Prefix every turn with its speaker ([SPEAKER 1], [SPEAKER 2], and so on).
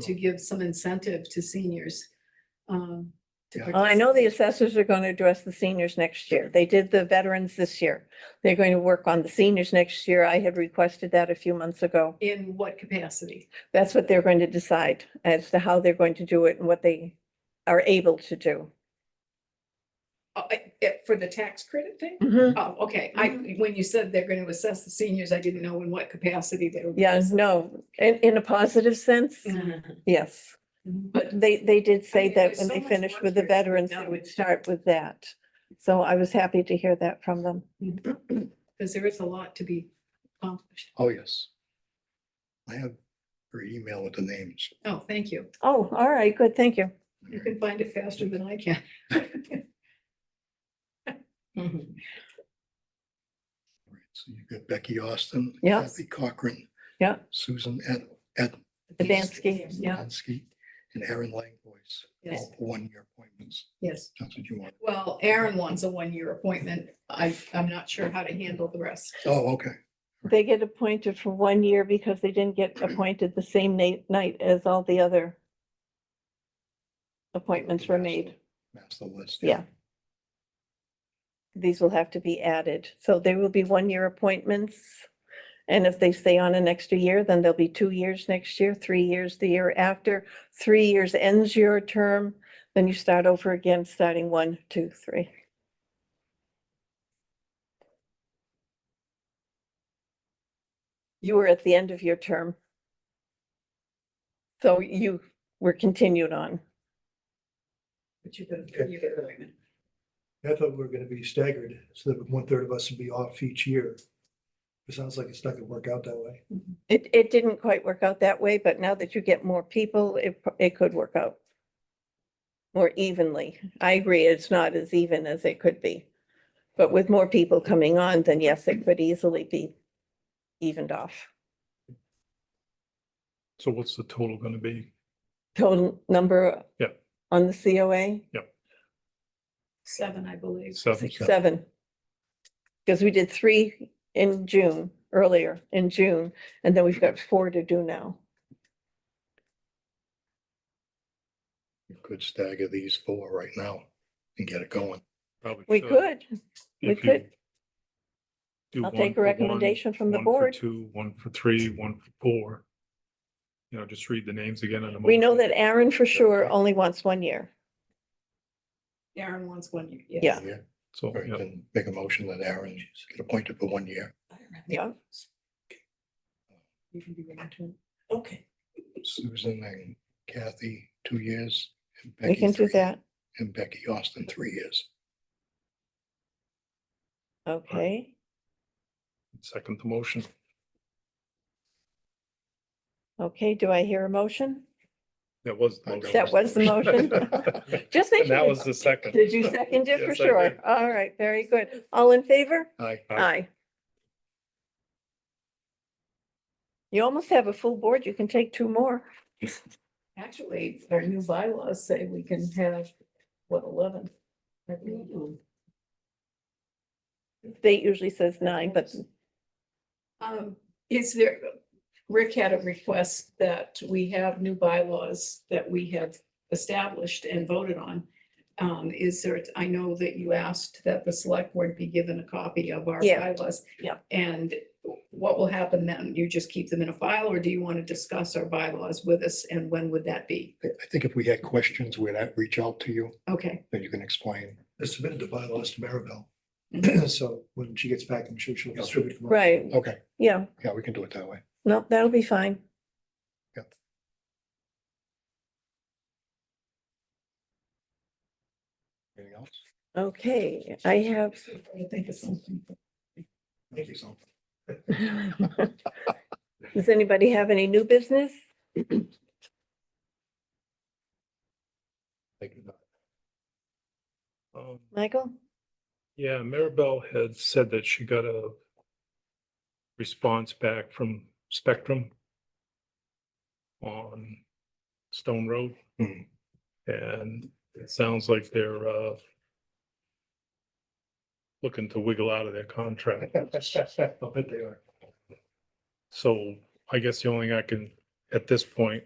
[SPEAKER 1] to give some incentive to seniors. um, to
[SPEAKER 2] Yeah.
[SPEAKER 3] Well, Oh, I know the
[SPEAKER 1] participate.
[SPEAKER 3] assessors are going to address the seniors next year. They did the veterans this year. They're going to work on the seniors next year. I had requested that a few months ago.
[SPEAKER 1] In what capacity?
[SPEAKER 3] That's what they're going to decide as to how they're going to do it and what they are able to do.
[SPEAKER 1] Oh, I- eh, For the tax credit thing?
[SPEAKER 3] Mm-hmm.
[SPEAKER 1] Oh, okay. I, when you said they're going to assess the seniors, I didn't know in what capacity they were.
[SPEAKER 3] Yeah, no, in, in a positive sense,
[SPEAKER 1] Mhm.
[SPEAKER 3] yes.
[SPEAKER 1] Mm-hmm.
[SPEAKER 3] But they, they did say
[SPEAKER 1] mean,
[SPEAKER 3] that
[SPEAKER 1] there's
[SPEAKER 3] when
[SPEAKER 1] so
[SPEAKER 3] they
[SPEAKER 1] much
[SPEAKER 3] finished with the
[SPEAKER 1] work here to be
[SPEAKER 3] veterans, they
[SPEAKER 1] done.
[SPEAKER 3] would start with that. So I was happy to hear that from them.
[SPEAKER 1] Because there is a lot to be accomplished.
[SPEAKER 2] Oh, yes. I have her email with the names.
[SPEAKER 1] Oh, thank you.
[SPEAKER 3] Oh, all right, good, thank you.
[SPEAKER 1] You can find it faster than I can. Mhm.
[SPEAKER 2] So you've got Becky Austin.
[SPEAKER 3] Yeah.
[SPEAKER 2] Kathy Cochran.
[SPEAKER 3] Yeah.
[SPEAKER 2] Susan Ed, Ed.
[SPEAKER 3] Adamski, yeah.
[SPEAKER 2] Adamski, And Aaron Langbois,
[SPEAKER 1] Yes,
[SPEAKER 2] all one-year appointments.
[SPEAKER 1] yes.
[SPEAKER 2] That's what you want.
[SPEAKER 1] Well, Aaron wants a one-year appointment. I, I'm not sure how to handle the rest.
[SPEAKER 2] Oh, okay.
[SPEAKER 3] They get appointed for one year because they didn't get appointed the same na- night as all the other appointments were made.
[SPEAKER 2] That's the list.
[SPEAKER 3] Yeah. These will have to be added. So they will be one-year appointments. And if they stay on an extra year, then there'll be two years next year, three years the year after. Three years ends your term, then you start over again, starting one, two, three. You were at the end of your term. So you were continued on.
[SPEAKER 1] But you could,
[SPEAKER 4] Okay.
[SPEAKER 1] you could appointment.
[SPEAKER 4] I thought we were gonna be staggered, so that one third of us would be off each year. It sounds like it's not gonna work out that way.
[SPEAKER 3] It, it didn't quite work out that way, but now that you get more people, it, pro- it could work out more evenly. I agree, it's not as even as it could be. But with more people coming on, then yes, it could easily be evened off.
[SPEAKER 5] So what's the total gonna be?
[SPEAKER 3] Total number
[SPEAKER 5] Yep.
[SPEAKER 3] on the COA,
[SPEAKER 1] Seven, I believe.
[SPEAKER 5] Seven,
[SPEAKER 3] seven. Because we did three in June, earlier in June, and then we've got four to do now.
[SPEAKER 2] You could stagger these four right now and get it going.
[SPEAKER 5] probably
[SPEAKER 3] We
[SPEAKER 5] should.
[SPEAKER 3] could, we
[SPEAKER 5] If you
[SPEAKER 3] could.
[SPEAKER 5] do
[SPEAKER 3] I'll
[SPEAKER 5] one
[SPEAKER 3] take
[SPEAKER 5] for
[SPEAKER 3] a
[SPEAKER 5] one,
[SPEAKER 3] recommendation from the
[SPEAKER 5] one for
[SPEAKER 3] board.
[SPEAKER 5] Two, one for three, one for four. You know, just read the names again in a moment.
[SPEAKER 3] We know that Aaron for sure only wants one year.
[SPEAKER 1] Aaron wants one year. yes.
[SPEAKER 3] Yeah.
[SPEAKER 5] So,
[SPEAKER 2] Or you
[SPEAKER 5] yeah,
[SPEAKER 2] can make a motion that Aaron get appointed for one year.
[SPEAKER 3] Yeah.
[SPEAKER 1] You can be willing to.
[SPEAKER 2] Susan and Kathy, two years. and
[SPEAKER 3] We
[SPEAKER 2] Becky,
[SPEAKER 3] can do
[SPEAKER 2] three,
[SPEAKER 3] that.
[SPEAKER 2] And Becky Austin, three years.
[SPEAKER 3] Okay,
[SPEAKER 5] second the motion.
[SPEAKER 3] okay. Do I hear a motion?
[SPEAKER 5] That was. the
[SPEAKER 2] I
[SPEAKER 5] motion.
[SPEAKER 2] don't-
[SPEAKER 3] That was the motion. Just make
[SPEAKER 5] And that
[SPEAKER 3] sure.
[SPEAKER 5] was the second.
[SPEAKER 3] Did you second it for
[SPEAKER 5] Yes, I
[SPEAKER 3] sure?
[SPEAKER 5] did.
[SPEAKER 3] All right, very good. All in favor?
[SPEAKER 2] Aye.
[SPEAKER 5] Aye.
[SPEAKER 3] Aye. You almost have a full board. You can take two more.
[SPEAKER 1] Actually, our new bylaws say we can have, what, eleven? I believe.
[SPEAKER 3] State usually says nine, but
[SPEAKER 1] Um, is there, Rick had a request that we have new bylaws that we have established and voted on. Um, is there, I know that you asked that the select board be given a copy of our
[SPEAKER 3] Yeah.
[SPEAKER 1] bylaws.
[SPEAKER 3] Yeah.
[SPEAKER 1] And what will happen then? You just keep them in a file or do you want to discuss our bylaws with us and when would that be?
[SPEAKER 2] I I think if we had questions, we'd out- reach out to you,
[SPEAKER 1] Okay,
[SPEAKER 2] then you can explain.
[SPEAKER 4] I submitted the bylaws to Maribel. So when she gets back, I'm sure she'll distribute. them.
[SPEAKER 3] Mm-hmm. right,
[SPEAKER 2] Okay,
[SPEAKER 3] yeah,
[SPEAKER 2] yeah, we can do it that way.
[SPEAKER 3] no, that'll be fine.
[SPEAKER 2] Yep. Anything else?
[SPEAKER 3] Okay, I have
[SPEAKER 1] I think it's something.
[SPEAKER 2] Thank you, so.
[SPEAKER 3] Does anybody have any new business?
[SPEAKER 2] Thank you.
[SPEAKER 5] Um,
[SPEAKER 3] Michael?
[SPEAKER 5] Yeah, Maribel had said that she got a response back from Spectrum on Stone Road.
[SPEAKER 2] Hmm.
[SPEAKER 5] And it sounds like they're uh looking to wiggle out of their contract.
[SPEAKER 4] I bet they are.
[SPEAKER 5] So I guess the only thing I can, at this point,